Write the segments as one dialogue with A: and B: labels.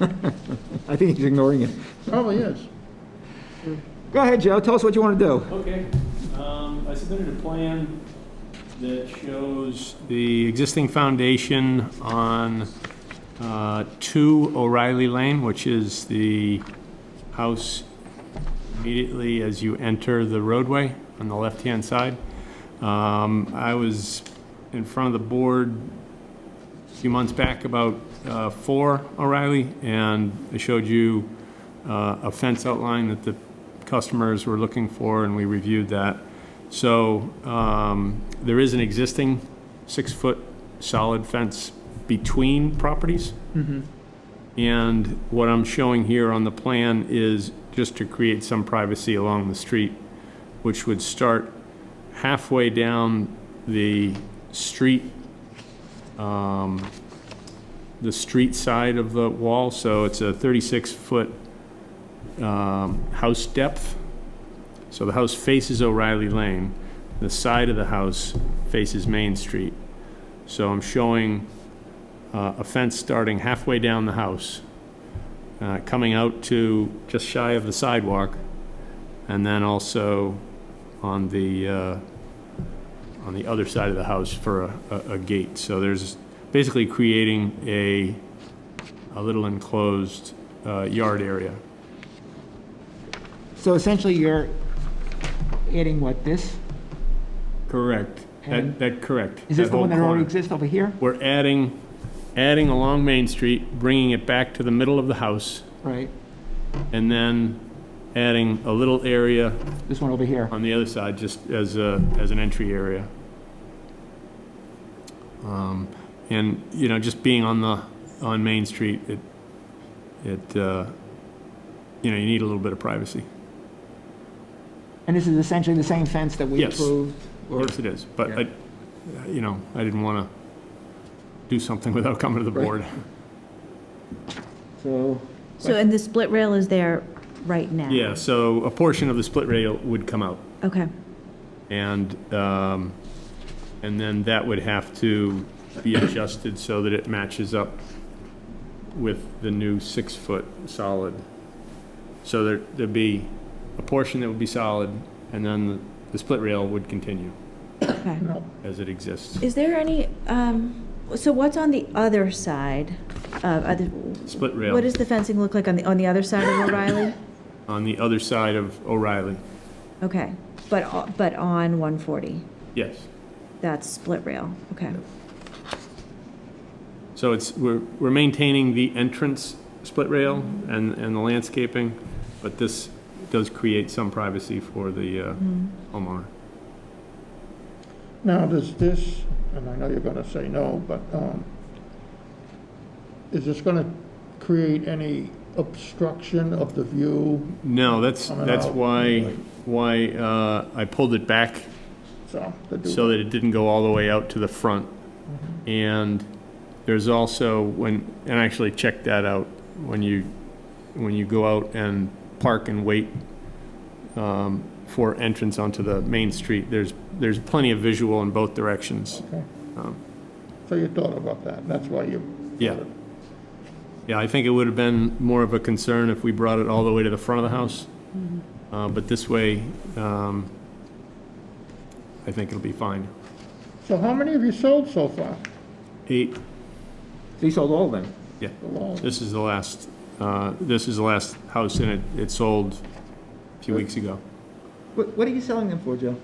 A: I think he's ignoring you.
B: Probably is.
A: Go ahead, Joe, tell us what you want to do.
C: Okay, um, I submitted a plan that shows the existing foundation on, uh, two O'Reilly Lane, which is the house immediately as you enter the roadway on the left-hand side. Um, I was in front of the board a few months back about, uh, four O'Reilly, and I showed you, uh, a fence outline that the customers were looking for, and we reviewed that. So um, there is an existing six-foot solid fence between properties. And what I'm showing here on the plan is just to create some privacy along the street, which would start halfway down the street, um, the street side of the wall. So it's a 36-foot um, house depth. So the house faces O'Reilly Lane. The side of the house faces Main Street. So I'm showing uh, a fence starting halfway down the house, uh, coming out to just shy of the sidewalk, and then also on the, uh, on the other side of the house for a- a, a gate. So there's basically creating a, a little enclosed uh, yard area.
A: So essentially, you're adding what, this?
C: Correct.
A: And-
C: That, that, correct.
A: Is this the
C: whole
A: one that already
C: corner.
A: exists over here?
C: We're adding, adding along Main Street, bringing it back to the middle of the house,
A: Right,
C: and then adding a little area
A: this one over here.
C: on the other side, just as a, as an entry area. Um, And, you know, just being on the, on Main Street, it, it, uh, you know, you need a little bit of privacy.
A: And this is essentially the same fence that we
C: Yes.
A: approved? or-
C: Yes, it is, but
A: Yeah.
C: I, you know, I didn't want to do something without coming to the
A: Right.
C: board.
A: So,
D: So, and the split rail is there right now?
C: Yeah, so a portion of the split rail would come out,
D: Okay,
C: and, um, and then that would have to be adjusted so that it matches up with the new six-foot solid. So there, there'd be a portion that would be solid, and then the, the split rail would continue
D: okay.
C: as it exists.
D: Is there any, um, so what's on the other side of, other?
C: Split
D: What
C: rail
D: does the fencing look like on the, on the other side of O'Reilly?
C: on the other side of O'Reilly.
D: Okay, but, o- but on 140,
C: Yes.
D: that's split rail, okay.
C: So it's, we're, we're maintaining the entrance split rail and, and the landscaping, but this does create some privacy for the uh, homeowner.
B: Now, does this, and I know you're gonna say no, but, um, is this gonna create any obstruction of the view?
C: No, that's,
B: Coming
C: that's
B: out.
C: why, why uh, I pulled it back
B: So, the do-
C: so that it didn't go all the way out to the front. And there's also, when, and I actually checked that out, when you, when you go out and park and wait um, for entrance onto the main street, there's, there's plenty of visual in both directions.
B: Okay.
C: Um,
B: So you thought about that, that's why you.
C: Yeah. Yeah, I think it would have been more of a concern if we brought it all the way to the front of the house. Uh, But this way, um, I think it'll be fine.
B: So how many have you sold so far?
C: Eight,
A: he sold all of them?
C: yeah.
B: The long-
C: This is the last, uh, this is the last house in it, it sold a few weeks ago.
A: What, what are you selling them for, Joe?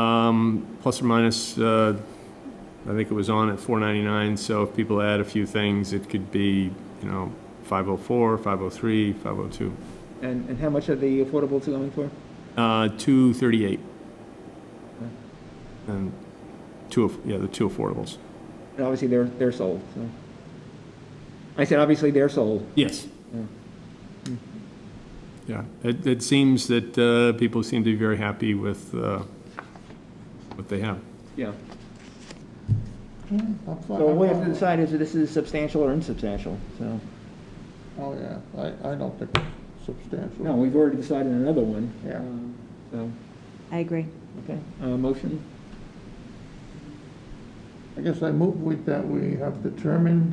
C: Um, Plus or minus, uh, I think it was on at 499, so if people add a few things, it could be, you know, 504, 503, 502.
A: And, and how much are the affordables going for?
C: Uh, 238. And two, aff- yeah, the two affordables.
A: And obviously, they're, they're sold, so. I said, obviously, they're sold.
C: Yes.
A: Yeah.
C: Yeah, it, it seems that uh, people seem to be very happy with uh, what they have.
A: Yeah.
B: I'm fine-
A: So
B: I'm
A: we
B: fine
A: have to
B: with-
A: decide is this is substantial or insubstantial, so.
B: Oh, yeah, I, I don't think it's substantial.
A: No, we've already decided on another one.
B: Yeah.
A: Um, So,
D: I agree.
A: okay, uh, motion?
B: I guess I move with that, we have determined